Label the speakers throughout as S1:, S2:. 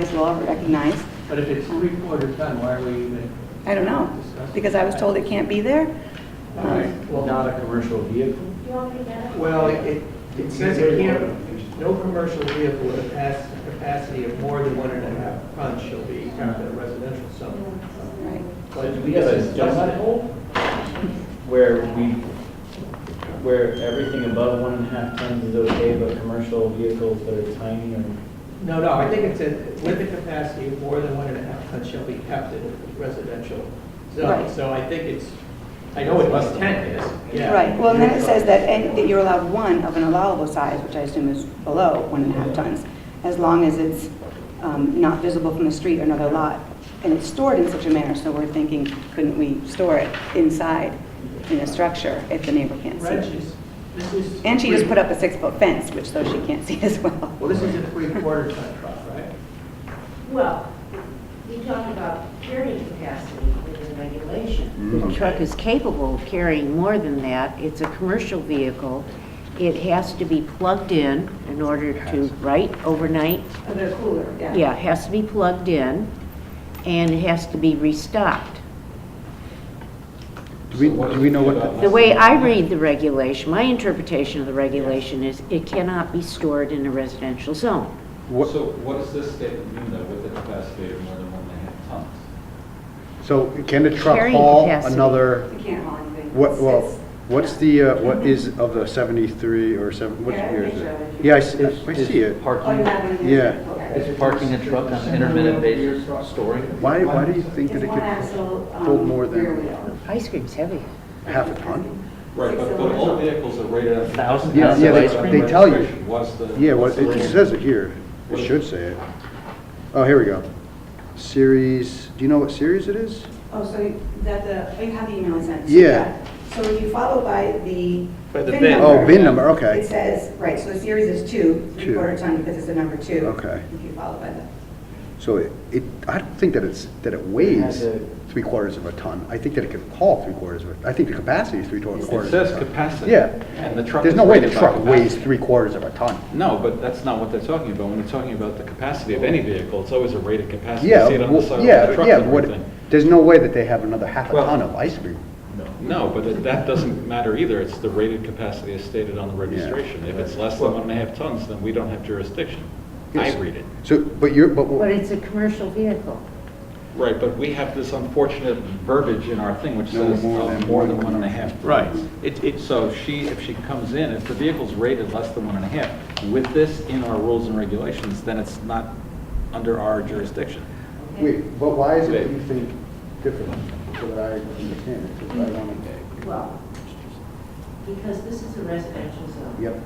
S1: as well recognized.
S2: But if it's three-quarter ton, why are we even?
S1: I don't know, because I was told it can't be there. Um,
S3: Well, not a commercial vehicle?
S4: You want me to get it?
S2: Well, it, it says it can't, no commercial vehicle with a pass, capacity of more than one and a half tons shall be kept in a residential zone.
S1: Right.
S3: So do we have a donut hole where we, where everything above one and a half tons is okay, but commercial vehicles that are tiny or?
S2: No, no, I think it said with a capacity of more than one and a half tons shall be kept in a residential
S1: Right.
S2: zone. So I think it's, I know what the intent is, yeah.
S1: Right, well, and then it says that, any- that you're allowed one of an allowable size, which I assume is below one and a half tons, as long as it's um, not visible from the street or another lot, and it's stored in such a manner, so we're thinking, couldn't we store it inside in a structure if the neighbor can't see it?
S2: Wrenches, this is.
S1: And she just
S2: three-
S1: put up a six-foot fence, which though she can't see as well.
S2: Well, this is a three-quarter ton truck, right?
S4: Well, you talk about carrying capacity within regulation.
S5: The truck is capable of carrying more than that. It's a commercial vehicle. It has to be plugged in in order to, right, overnight?
S4: They're cooler,
S5: Yeah, it has to be plugged in, and it has to be restocked.
S6: Do we, do we know what, the-
S5: The way I read the regulation, my interpretation of the regulation is it cannot be stored in a residential zone.
S6: what,
S7: So what does this statement mean though, with a capacity of more than one and a half tons?
S6: so can the truck
S5: Carrying
S6: haul
S5: capacity.
S6: another,
S1: can't haul anything.
S6: what, well, what's the, uh, what is of the 73 or 7, what
S1: Yeah, I
S6: year is
S1: think so.
S6: it? Yeah, I see, I see it.
S8: Parking,
S6: Yeah.
S8: is parking a truck on an intermittent basis, storing?
S6: Why, why do you think that it could hold more than
S5: Ice cream's heavy.
S6: half a ton?
S7: Right, but, but all vehicles are rated at.
S3: Thousand
S6: Yeah,
S3: pounds
S6: yeah,
S3: of ice
S6: they,
S3: cream?
S6: they tell you.
S7: What's the?
S6: Yeah, well,
S7: what's the
S6: it
S7: limit?
S6: says it here. It should say it. Oh, here we go. Series, do you know what series it is?
S1: Oh, so that the, you have the email I sent?
S6: so Yeah.
S1: So when you follow by the.
S2: By the bin bin.
S6: Oh, bin number, okay.
S1: It says, right, so the series is two,
S6: Two.
S1: three-quarter ton, because it's the number two.
S6: Okay.
S1: If you follow by the,
S6: So it, it, I don't think that it's, that it
S3: It
S6: weighs
S3: has a-
S6: three quarters of a ton. I think that it could haul three quarters of a, I think the capacity is three quarters of a
S7: It
S6: ton.
S7: says capacity.
S6: Yeah.
S7: And the truck.
S6: There's
S7: is
S6: no way the
S7: rated by
S6: truck
S7: capacity.
S6: weighs three quarters of a ton.
S7: No, but that's not what they're talking about. When we're talking about the capacity of any vehicle, it's always a rated capacity. You
S6: Yeah,
S7: see it on the
S6: well,
S7: side of the
S6: yeah,
S7: trucks
S6: yeah,
S7: and
S6: what,
S7: everything.
S6: there's no way that they have another half a
S7: Well-
S6: ton of ice cream.
S7: No, but it- that doesn't matter either. It's the rated capacity as stated on the registration. If it's less than one and a half tons, then we don't have jurisdiction. I
S6: Yes.
S7: read it.
S6: So, but you're, but,
S5: But
S6: what-
S5: it's a commercial vehicle.
S7: Right, but we have this unfortunate verbiage in our thing which
S6: No
S7: says
S6: more
S7: uh,
S6: than
S7: more
S6: one
S7: than
S6: and a
S7: one and a half. Right. It, it, so she, if she comes in, if the vehicle's rated less than one and a half, with this in our rules and regulations, then it's not under our jurisdiction.
S6: wait, but why is it that you think differently? So that I understand it, 'cause I don't-
S4: Well, because this is a residential zone.
S6: Yep,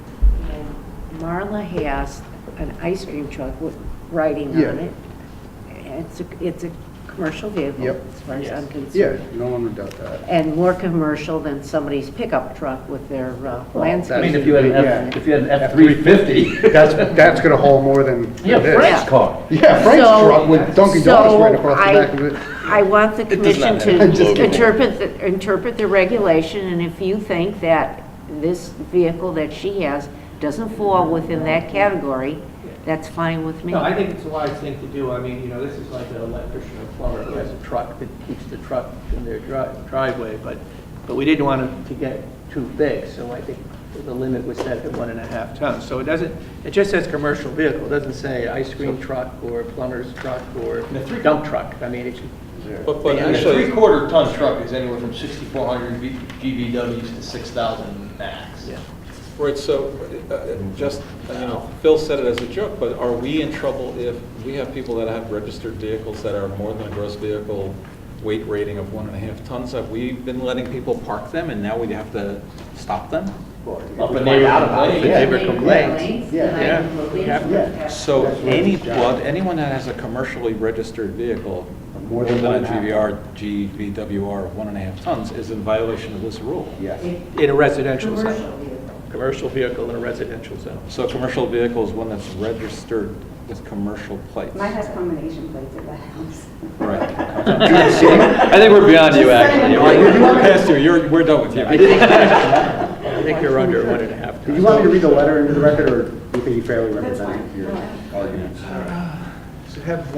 S4: And
S5: Marla has an ice cream truck with writing
S6: Yeah.
S5: on it. It's a, it's a commercial vehicle,
S6: Yep.
S5: as far as I'm
S6: yeah,
S5: concerned.
S6: no one would doubt that.
S5: And more commercial than somebody's pickup truck with their uh,
S3: I mean,
S5: landscape.
S3: if you had an F,
S6: Yeah.
S3: if you had an F-350.
S6: That's, that's gonna haul more than
S3: Yeah,
S6: this.
S3: Frank's car.
S6: Yeah, Frank's
S5: So-
S6: truck with Dunkin' Donuts right across the back of
S5: So
S6: it.
S5: I, I want the
S3: does
S5: commission
S3: not
S5: to
S3: matter.
S6: Just kidding.
S5: interpret, the- interpret the regulation, and if you think that this vehicle that she has doesn't fall within that category, that's fine with me.
S2: No, I think it's a wise thing to do. I mean, you know, this is like an electrician or plumber who has a truck that keeps the truck in their dri- driveway, but, but we didn't want it to get too big, so I think the limit was set at one and a half tons. So it doesn't, it just says commercial vehicle, it doesn't say ice cream truck or plumber's truck or dump truck. I mean, it should,
S9: But, but
S2: Yeah,
S9: a
S2: actually-
S9: three-quarter ton truck is anywhere from 6,400 V- GVWs to 6,000 max.
S2: yeah.
S7: Right, so, uh, just, you know, Phil said it as a joke, but are we in trouble if we have people that have registered vehicles that are more than a gross vehicle weight rating of one and a half tons? Have we been letting people park them and now we have to stop them?
S3: Up a
S9: Find out
S3: neighbor
S9: about it,
S3: complains.
S9: yeah.
S3: Neighbor complains.
S6: Yeah. Yeah.
S7: So
S6: That's what
S7: any,
S6: it's got.
S7: well, anyone that has a commercially registered vehicle, more
S6: More than
S7: than a
S6: one and a
S7: GVR, GVWR of one and a half tons, is in violation of this rule.
S6: Yes.
S2: In a residential
S4: Commercial
S2: zone.
S4: vehicle.
S2: Commercial vehicle in a residential zone.
S7: So a commercial vehicle is one that's registered with commercial plates.
S1: mine has combination plates at the house.
S7: Right.
S3: I think we're beyond you, actually.
S7: We're past you, you're, we're done with you.
S2: I think you're under one and a half
S6: Did
S2: tons.
S6: you want me to read the letter into the record, or do you think you fairly
S1: That's
S6: represented
S1: fine.
S6: your arguments?
S2: So
S10: have